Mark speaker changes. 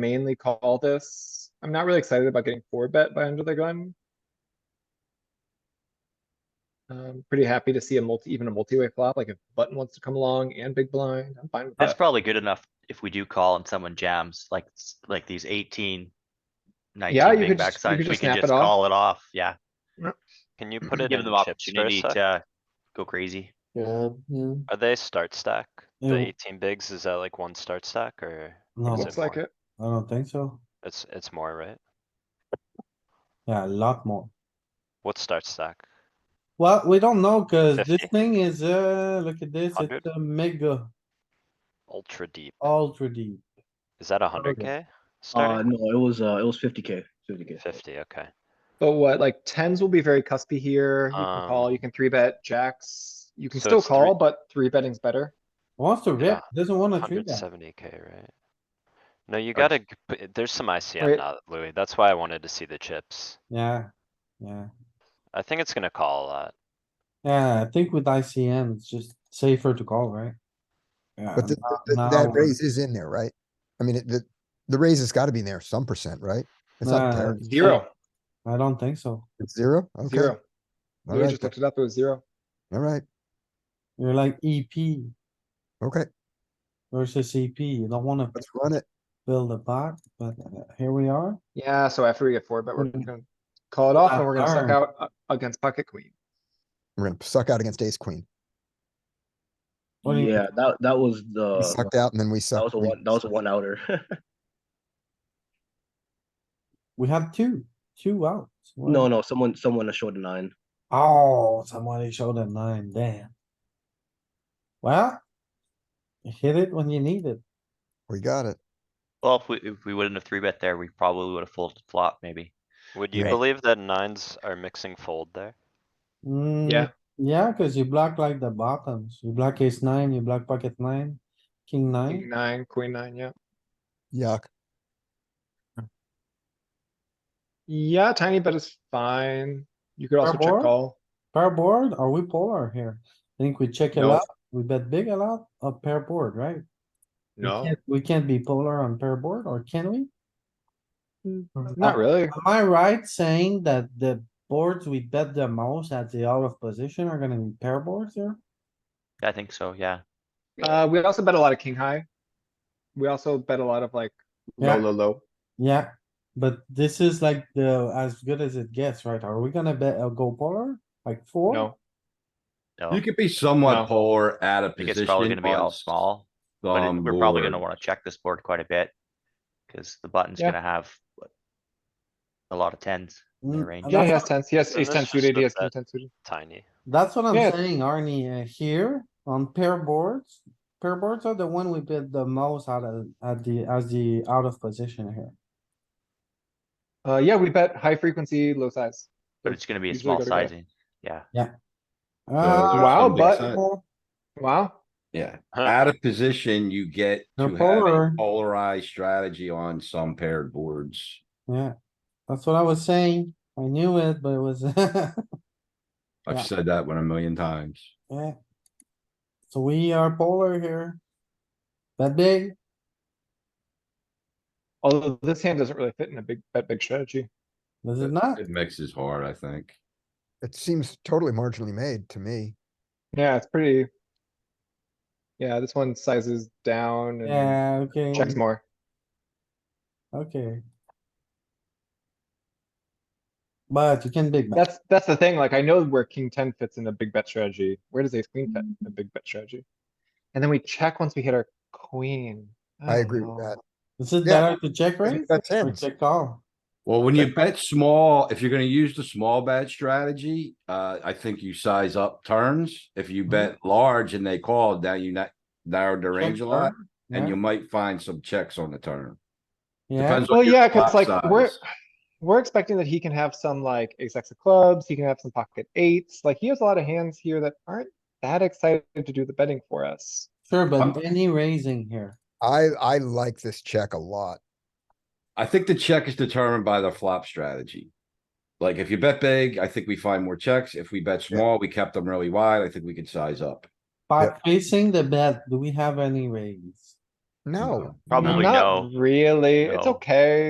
Speaker 1: mainly call this. I'm not really excited about getting four bet by under the gun. Um, pretty happy to see a multi, even a multi-way flop, like if button wants to come along and big blind, I'm fine with
Speaker 2: That's
Speaker 1: that.
Speaker 2: probably good enough if we do call and someone jams, like, s- like these eighteen.
Speaker 1: Yeah, you
Speaker 2: Nineteen
Speaker 1: could just- you
Speaker 2: big
Speaker 1: could
Speaker 2: backsides, we
Speaker 1: just
Speaker 2: can
Speaker 1: snap
Speaker 2: just
Speaker 1: it off.
Speaker 2: call it off, yeah,
Speaker 3: Can you put it
Speaker 2: give
Speaker 3: in
Speaker 2: them
Speaker 3: chips for a
Speaker 2: opportunity
Speaker 3: sec?
Speaker 2: to uh, go crazy.
Speaker 4: Yeah, yeah.
Speaker 3: Are they start stack? The
Speaker 4: Yeah.
Speaker 3: eighteen bigs, is that like one start stack or?
Speaker 4: No,
Speaker 3: is
Speaker 1: Looks like
Speaker 3: more?
Speaker 1: it.
Speaker 4: I don't think so.
Speaker 3: It's, it's more, right?
Speaker 4: Yeah, a lot more.
Speaker 3: What start stack?
Speaker 4: Well, we don't know cuz this
Speaker 3: 50.
Speaker 4: thing is, uh, look at this, it's
Speaker 3: 100.
Speaker 4: a mega
Speaker 3: Ultra deep.
Speaker 4: ultra deep.
Speaker 3: Is that a hundred K?
Speaker 5: Uh,
Speaker 3: Starting
Speaker 5: no, it was, uh, it was fifty K, fifty K.
Speaker 3: fifty, okay.
Speaker 1: But what, like tens will be very cuspy here. You can call, you
Speaker 3: Um,
Speaker 1: can three bet jacks. You can
Speaker 3: so
Speaker 1: still
Speaker 3: it's three-
Speaker 1: call, but three betting's better.
Speaker 4: Wants to rip,
Speaker 3: Yeah,
Speaker 4: doesn't wanna treat
Speaker 3: Hundred
Speaker 4: that.
Speaker 3: seventy K, right? No, you
Speaker 1: Okay.
Speaker 3: gotta, g- p- there's some
Speaker 1: Wait.
Speaker 3: ICM now, Louis. That's why I wanted to see the chips.
Speaker 4: Yeah, yeah.
Speaker 3: I think it's gonna call a lot.
Speaker 4: Yeah, I think with ICM, it's just safer to call, right? Yeah,
Speaker 6: But th-
Speaker 4: now-
Speaker 6: th-
Speaker 4: now
Speaker 6: that
Speaker 4: we're-
Speaker 6: raise is in there, right? I mean, it- the, the raise has gotta be in there some percent, right? It's
Speaker 4: Nah,
Speaker 6: not terrible,
Speaker 4: it's-
Speaker 1: Zero,
Speaker 4: I don't think so.
Speaker 6: it's zero, okay,
Speaker 1: Oh, zero.
Speaker 6: all
Speaker 1: Louis
Speaker 6: right,
Speaker 1: just looked it up. It was zero.
Speaker 6: all right,
Speaker 4: You're like EP
Speaker 6: okay,
Speaker 4: versus CP. You don't wanna
Speaker 6: let's run it.
Speaker 4: build a pot, but uh, here we are.
Speaker 1: Yeah, so after we get four bet, we're
Speaker 4: Mm.
Speaker 1: gonna call it off and
Speaker 4: Ah,
Speaker 1: we're gonna suck
Speaker 4: darn.
Speaker 1: out uh, against pocket queen.
Speaker 6: We're gonna suck out against ace queen.
Speaker 4: What do you-
Speaker 5: Yeah, that, that was the,
Speaker 6: We sucked out and then we
Speaker 5: Uh, that
Speaker 6: sucked.
Speaker 5: was a
Speaker 6: we-
Speaker 5: one, that was a one outer.
Speaker 4: We had two, two outs. What-
Speaker 5: No, no, someone, someone showed a nine.
Speaker 4: Oh, somebody showed a nine, damn. Well. you Hit it when you need it.
Speaker 6: We got it.
Speaker 2: Well, if we, if we wouldn't have three bet there, we probably would have folded flop, maybe.
Speaker 3: Would you
Speaker 6: Right.
Speaker 3: believe that nines are mixing fold there?
Speaker 4: Mm,
Speaker 1: Yeah.
Speaker 4: Yeah, cuz you block like the bottoms. You block ace nine, you block pocket nine, king
Speaker 1: King
Speaker 4: nine.
Speaker 1: nine, queen nine, yeah.
Speaker 6: Yuck.
Speaker 1: Yeah, tiny bet is fine. You could also check
Speaker 4: Barbour?
Speaker 1: call.
Speaker 4: Pair board, are we polar here? I think we check it
Speaker 1: Mm-hmm. No.
Speaker 4: out. We bet big a lot of pair board, right? We
Speaker 1: No,
Speaker 4: can't- We can't be polar on pair board, or can we?
Speaker 1: Mm, not really.
Speaker 4: Am I right saying that the boards we bet the most at the out of position are gonna be pair boards here?
Speaker 2: I think so, yeah.
Speaker 1: Uh, we also bet a lot of king high. We also bet a lot of like
Speaker 4: Yeah.
Speaker 1: low, low, low.
Speaker 4: Yeah, but this is like the, as good as it gets, right? Are we gonna bet a go polar? Like four?
Speaker 1: No,
Speaker 2: No,
Speaker 7: You
Speaker 2: I
Speaker 7: could be
Speaker 1: No.
Speaker 7: somewhat polar at a
Speaker 2: think it's
Speaker 7: position.
Speaker 2: probably gonna be
Speaker 7: on
Speaker 2: all
Speaker 7: s-
Speaker 2: small, but it-
Speaker 7: some
Speaker 2: we're probably gonna
Speaker 7: boards.
Speaker 2: wanna check this board quite a bit. Cause the button's
Speaker 1: Yeah.
Speaker 2: gonna have what, a lot of tens.
Speaker 4: Mm,
Speaker 2: range.
Speaker 4: and
Speaker 1: yeah, he
Speaker 4: that's-
Speaker 1: has tens, he has
Speaker 3: So
Speaker 1: ace
Speaker 3: this
Speaker 1: ten
Speaker 3: is
Speaker 1: suited,
Speaker 3: the
Speaker 1: he has king
Speaker 3: bet.
Speaker 1: ten suited.
Speaker 3: Tiny.
Speaker 4: That's what I'm
Speaker 1: Yeah.
Speaker 4: saying, Arnie, uh, here on pair boards, pair boards are the one we bet the most out of, at the, as the out of position here.
Speaker 1: Uh, yeah, we bet high frequency, low size.
Speaker 2: But it's gonna be a
Speaker 1: Usually
Speaker 2: small
Speaker 1: gotta go.
Speaker 2: sizing,
Speaker 7: there's
Speaker 4: Uh,
Speaker 1: Wow,
Speaker 7: some big
Speaker 1: but-
Speaker 7: side-
Speaker 4: well,
Speaker 1: Wow,
Speaker 7: Yeah,
Speaker 3: Huh.
Speaker 7: out of position, you get
Speaker 4: They're
Speaker 7: to have
Speaker 4: polar.
Speaker 7: a polarized strategy on some paired boards.
Speaker 4: yeah, that's what I was saying. I knew it, but it was, Yeah.
Speaker 7: I've said that one a million times.
Speaker 4: yeah. So we are polar here. That big,
Speaker 1: although this hand doesn't really fit in a big, bet big strategy.
Speaker 4: does it not?
Speaker 7: It mixes hard, I think.
Speaker 6: It seems totally marginally made to me.
Speaker 1: Yeah, it's pretty. Yeah, this one sizes down and
Speaker 4: Yeah, okay.
Speaker 1: checks more.
Speaker 4: Okay. But you can big bet.
Speaker 1: That's, that's the thing, like, I know where king ten fits in a big bet strategy, where does ace queen fit in
Speaker 6: Mm-hmm.
Speaker 1: a big bet strategy? And then we check once we hit our queen. Oh,
Speaker 6: I
Speaker 1: don't
Speaker 6: agree with
Speaker 1: know.
Speaker 6: that.
Speaker 4: Is it
Speaker 6: Yeah.
Speaker 4: better to check raise
Speaker 6: bet
Speaker 4: or
Speaker 6: tens.
Speaker 4: check call?
Speaker 7: Well, when you bet small, if you're gonna use the small bet strategy, uh, I think you size up turns. If
Speaker 4: Mm-hmm.
Speaker 7: you bet large and they called, now you not narrowed the range a lot, and
Speaker 4: Yeah.
Speaker 7: you might find some checks on the turn.
Speaker 4: Yeah,
Speaker 7: Depends on
Speaker 1: Well,
Speaker 7: your
Speaker 1: yeah, cuz
Speaker 7: flop
Speaker 1: like, we're,
Speaker 7: size.
Speaker 1: we're expecting that he can have some like ace X of clubs, he can have some pocket eights, like, he has a lot of hands here that aren't that excited to do the betting for us.
Speaker 4: sure, but
Speaker 7: I'm-
Speaker 4: any raising here.
Speaker 6: I, I like this check a lot.
Speaker 7: I think the check is determined by the flop strategy. Like if you bet big, I think we find more checks. If we bet
Speaker 6: Yeah.
Speaker 7: small, we kept them really wide. I think we could size up.
Speaker 4: By facing the bet, do we have any raise?
Speaker 6: No.
Speaker 2: Probably no.
Speaker 1: Not really. It's
Speaker 2: No.
Speaker 1: okay.